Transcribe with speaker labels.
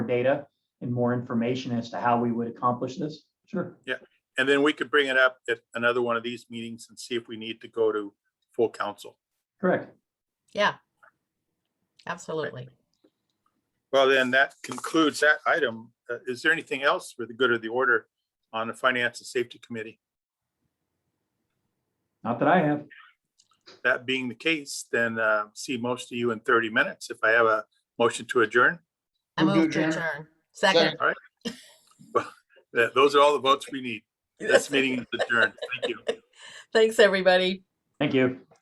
Speaker 1: data and more information as to how we would accomplish this? Sure.
Speaker 2: And then we could bring it up at another one of these meetings and see if we need to go to full council.
Speaker 1: Correct.
Speaker 3: Yeah. Absolutely.
Speaker 2: Well, then that concludes that item. Uh, Is there anything else for the good of the order on the Finance and Safety Committee?
Speaker 1: Not that I have.
Speaker 2: That being the case, then uh, see most of you in 30 minutes if I have a motion to adjourn.
Speaker 3: I
Speaker 4: Move to
Speaker 3: move to
Speaker 4: adjourn.
Speaker 3: adjourn. Second.
Speaker 2: That- Those are all the votes we need. This meeting is adjourned. Thank you.
Speaker 3: Thanks, everybody.
Speaker 1: Thank you.